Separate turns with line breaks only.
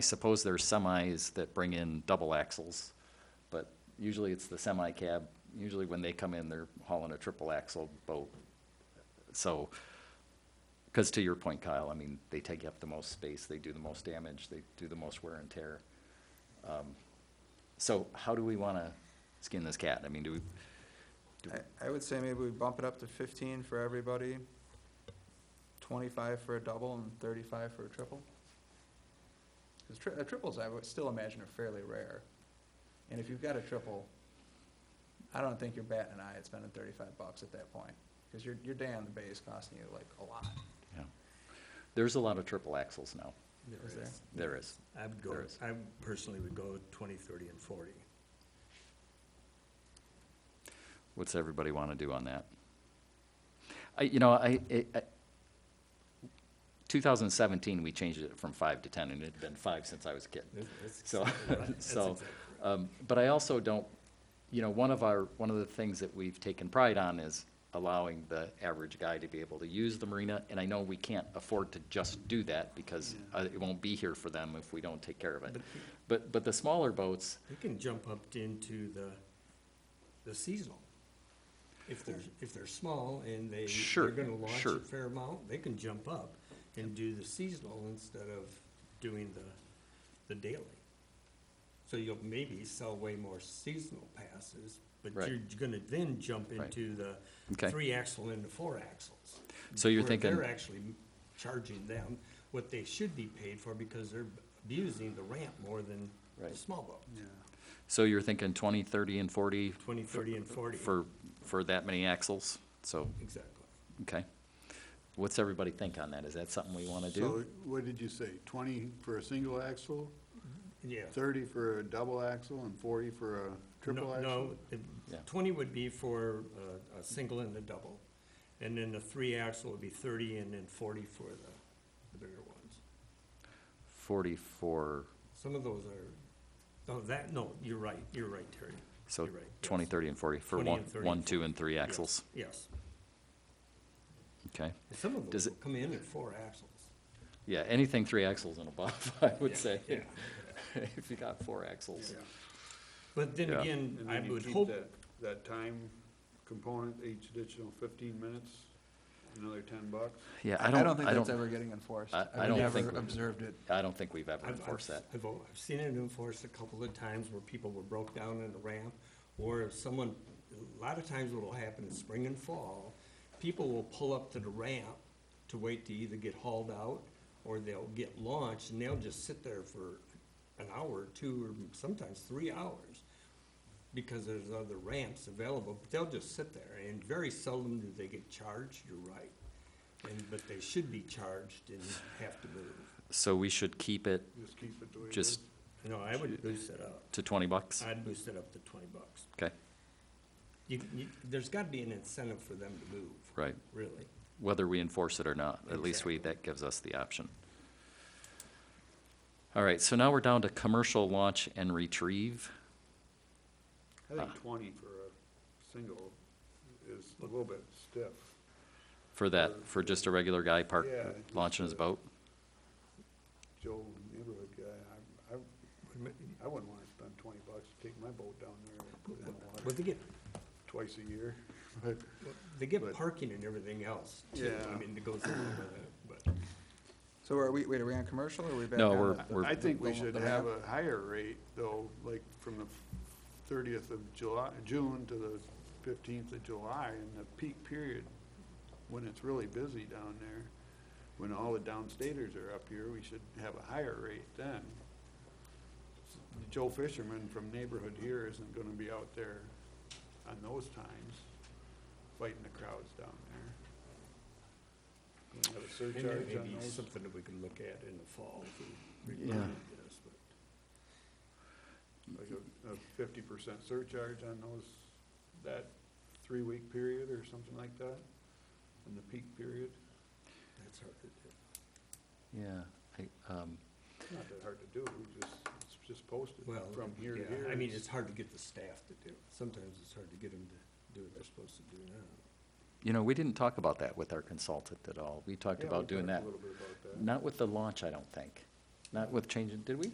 I suppose there's semis that bring in double axles, but usually it's the semi cab. Usually when they come in, they're hauling a triple axle boat. So, because to your point, Kyle, I mean, they take up the most space, they do the most damage, they do the most wear and tear. Um, So how do we want to skin this cat? I mean, do we, do we-
I, I would say maybe we bump it up to fifteen for everybody, twenty-five for a double and thirty-five for a triple. Cause tri- uh, triples, I would still imagine are fairly rare. And if you've got a triple, I don't think you're batting an eye at spending thirty-five bucks at that point. Cause your, your day on the bay is costing you like a lot.
yeah. There's a lot of triple axles now.
There
Is there?
is.
There is.
I would go,
There is.
I personally would go twenty, thirty, and forty.
What's everybody want to do on that? I, you know, I, I, I- 2017, we changed it from five to 10, and it had been five since I was a kid.
That's- that's
So,
exactly right. That's
so,
exactly right.
um, but I also don't, you know, one of our, one of the things that we've taken pride on is allowing the average guy to be able to use the marina, and I know we can't afford to just do that because
Yeah.
uh, it won't be here for them if we don't take care of it.
But you-
But, but the smaller boats,
You can jump up into the, the seasonal. If they're, if they're small and they,
Sure,
they're gonna launch
sure.
a fair amount, they can jump up and do the seasonal instead of doing the, the daily. So you'll maybe sell way more seasonal passes, but
Right.
you're gonna then jump
Right.
into the
Okay.
three axle and the four axles.
So you're
where
thinking-
They're actually charging them what they should be paid for because they're abusing the ramp more than the
Right.
small boat.
so you're thinking 20, 30, and 40
20, 30, and 40.
for, for that many axles? So,
Exactly.
okay. What's everybody think on that? Is that something we want to
So
do?
what did you say, twenty for a single axle,
Yeah.
thirty for a double axle, and forty for a triple
No-
axle?
No, it-
Yeah.
20 would be for uh, a single and a double. And then the three axle would be 30 and then 40 for the the bigger ones.
40 for,
Some of those are, oh, that, no, you're right, you're right, Terry.
so
You're right, yes.
20, 30, and 40 for
20
one,
and 30 and
one, two,
40.
and three
Yes,
axles?
Yes.
Okay.
And Some of
Does
those
it-
will come in at four axles.
Yeah, anything three axles and above, I would
Yeah,
say.
yeah.
If you got four axles.
But then
Yeah.
again,
And
I
then you
would
keep
hope,
that- That time component, each additional fifteen minutes, another ten bucks?
Yeah, I don't,
think
I
that's
don't,
ever getting enforced.
I- I
I've
don't
never
think we-
observed it.
I don't think we've ever
I've, I've,
enforced that.
I've o- I've seen it enforced a couple of times where people were broke down in the ramp, or if someone, a lot of times what'll happen in spring and fall, people will pull up to the ramp to wait to either get hauled out, or they'll get launched, and they'll just sit there for an hour, or two, or sometimes three hours, because there's other ramps available, but they'll just sit there, and very seldom do they get charged, you're right. And, but they should be charged and have to move.
So we should keep it
Just keep it the way it is?
just
No, I would boost it up.
to 20 bucks?
I'd boost it up to twenty bucks.
Okay,
You, you, there's gotta be an incentive for them to move,
right.
really.
whether we enforce it or not, at least we, that gives us the option. All right, so now we're down to commercial launch and retrieve.
I
uh,
think twenty for a single is a little bit stiff.
For that, for just a regular guy park,
Yeah.
launching his boat?
Joe, neighborhood guy, I, I, I wouldn't wanna spend twenty bucks to take my boat down there and put it in the
But
water
they get,
twice a year, but.
they get
But-
parking and everything else too. I
Yeah.
mean, it goes along with it,
So are we, wait, are we on commercial or are we back on?
No,
the-
We're-
I think we
the-
should
the
have
ramp?
a higher rate, though, like from the thirtieth of July, June to the fifteenth of July, in the peak period, when it's really busy down there, when all the downstaters are up here, we should have a higher rate then. Joe Fisherman from neighborhood here isn't gonna be out there on those times, fighting the crowds down there. Gonna have a
but
surcharge
maybe,
on
maybe
those.
something that we can look at in the fall if we.
Yeah.
revisit this, but-
like a, a fifty percent surcharge on those, that three-week period or something like that, in the peak period.
That's hard to do.
Yeah. I, um,
Not that hard to do, just, it's just posted
Well,
from here to
yeah,
here.
I mean, it's hard to get the staff to do it. Sometimes it's hard to get them to do what they're supposed to do now.
You know, we didn't talk about that with our consultant at all. We talked
Yeah, we
about doing that.
talked A little bit about that.
Not with the launch, I don't think. Not with changing, did we?